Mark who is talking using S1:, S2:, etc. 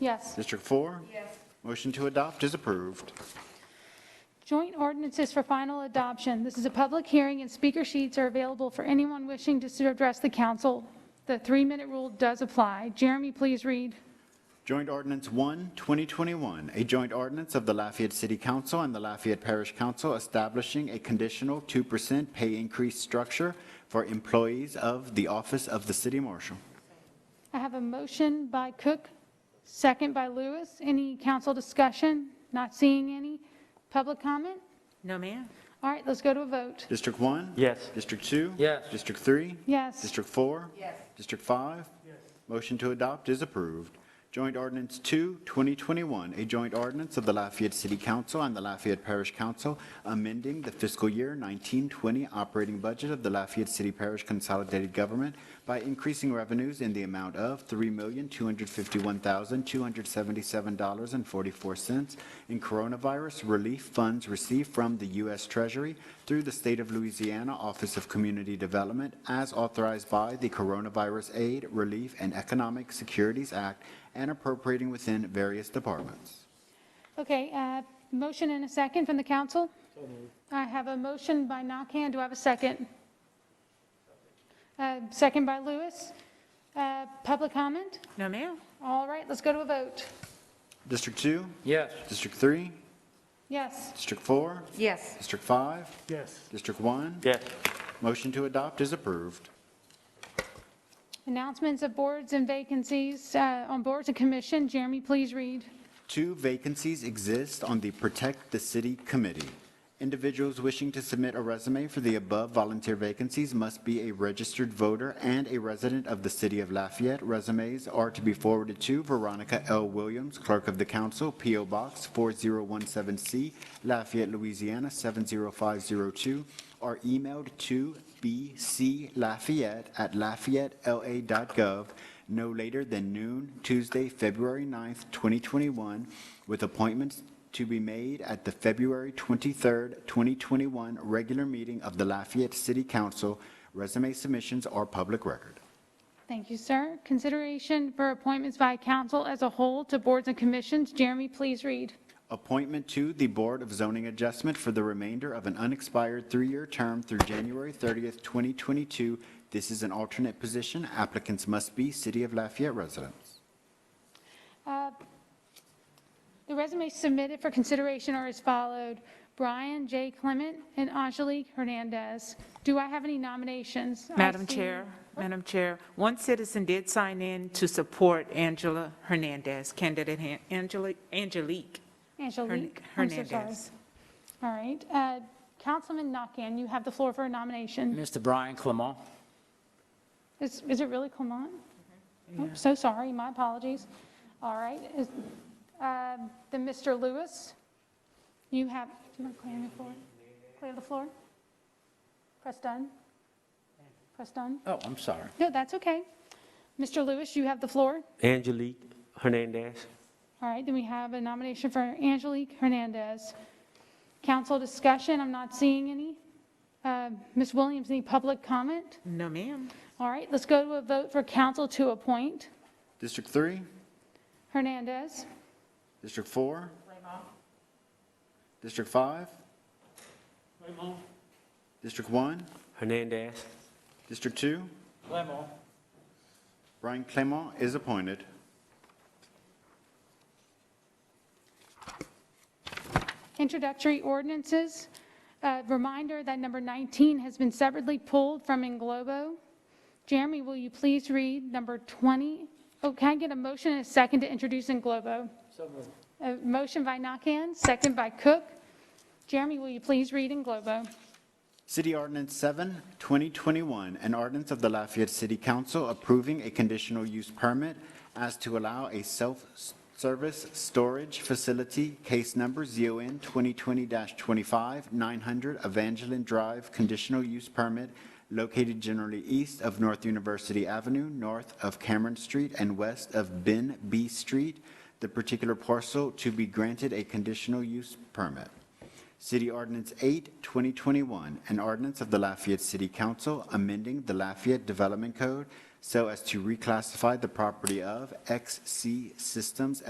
S1: Yes.
S2: District 4? Yes. Motion to adopt is approved.
S1: Joint ordinances for final adoption. This is a public hearing, and speaker sheets are available for anyone wishing to address the council. The three-minute rule does apply. Jeremy, please read.
S2: Joint Ordinance 1, 2021, a joint ordinance of the Lafayette City Council and the Lafayette Parish Council establishing a conditional 2% pay increase structure for employees of the Office of the City Marshal.
S1: I have a motion by Cook, second by Lewis. Any council discussion? Not seeing any. Public comment?
S3: No, ma'am.
S1: All right, let's go to a vote.
S2: District 1?
S4: Yes.
S2: District 2?
S4: Yes.
S2: District 3?
S1: Yes.
S2: District 4? Yes. District 5? Yes. Motion to adopt is approved. Joint Ordinance 2, 2021, a joint ordinance of the Lafayette City Council and the Lafayette Parish Council amending the fiscal year 1920 operating budget of the Lafayette City Parish Consolidated Government by increasing revenues in the amount of $3,251,277.44 in coronavirus relief funds received from the U.S. Treasury through the State of Louisiana Office of Community Development as authorized by the Coronavirus Aid, Relief, and Economic Securities Act and appropriating within various departments.
S1: Okay, uh, motion and a second from the council? I have a motion by Nakhan, do I have a second? Uh, Second by Lewis. Uh, Public comment?
S3: No, ma'am.
S1: All right, let's go to a vote.
S2: District 2?
S4: Yes.
S2: District 3?
S1: Yes.
S2: District 4?
S3: Yes.
S2: District 5?
S4: Yes.
S2: District 1?
S4: Yes.
S2: Motion to adopt is approved.
S1: Announcements of boards and vacancies uh, on boards and commission. Jeremy, please read.
S2: Two vacancies exist on the Protect the City Committee. Individuals wishing to submit a resume for the above volunteer vacancies must be a registered voter and a resident of the city of Lafayette. Resumes are to be forwarded to Veronica L. Williams, Clerk of the Council, P.O. Box 4017C, Lafayette, Louisiana 70502, or emailed to bclafayette@lafayettela.gov no later than noon Tuesday, February 9th, 2021, with appointments to be made at the February 23rd, 2021 regular meeting of the Lafayette City Council. Resume submissions are public record.
S1: Thank you, sir. Consideration for appointments by council as a whole to boards and commissions. Jeremy, please read.
S2: Appointment to the Board of Zoning Adjustment for the remainder of an unexpired three-year term through January 30th, 2022. This is an alternate position. Applicants must be City of Lafayette residents.
S1: Uh, The resumes submitted for consideration are as followed: Brian J. Clement and Angelique Hernandez. Do I have any nominations? I
S3: Madam
S1: see-
S3: Chair, Madam Chair, one citizen did sign in to support Angela Hernandez, candidate Han- Angela- Angelique
S1: Angelique, I'm so sorry.
S3: Hernandez.
S1: All right. Uh, Councilman Nakhan, you have the floor for a nomination.
S4: Mr. Brian Clement.
S1: Is is it really Clement? Oh, So sorry, my apologies. All right. is- uh, Then Mr. Lewis, you have, do you want to clear the floor? Clear the floor? Press done? Press done?
S4: Oh, I'm sorry.
S1: No, that's okay. Mr. Lewis, you have the floor.
S5: Angelique Hernandez.
S1: All right, then we have a nomination for Angelique Hernandez. Council discussion, I'm not seeing any. Uh, Ms. Williams, any public comment?
S3: No, ma'am.
S1: All right, let's go to a vote for council to appoint
S2: District 3?
S1: Hernandez.
S2: District 4? District 5? District 1?
S5: Hernandez.
S2: District 2?
S4: Clement.
S2: Brian Clement is appointed.
S1: Introductory ordinances. Uh, Reminder that number 19 has been separately pulled from Englobo. Jeremy, will you please read number 20? Oh, can I get a motion and a second to introduce Englobo? A motion by Nakhan, second by Cook. Jeremy, will you please read Englobo?
S2: City Ordinance 7, 2021, an ordinance of the Lafayette City Council approving a conditional use permit as to allow a self-service storage facility, case number ZON 2020-25, 900 Evangeline Drive, conditional use permit located generally east of North University Avenue, north of Cameron Street, and west of Ben B. Street, the particular parcel to be granted a conditional use permit. City Ordinance 8, 2021, an ordinance of the Lafayette City Council amending the Lafayette Development Code so as to reclassify the property of XC Systems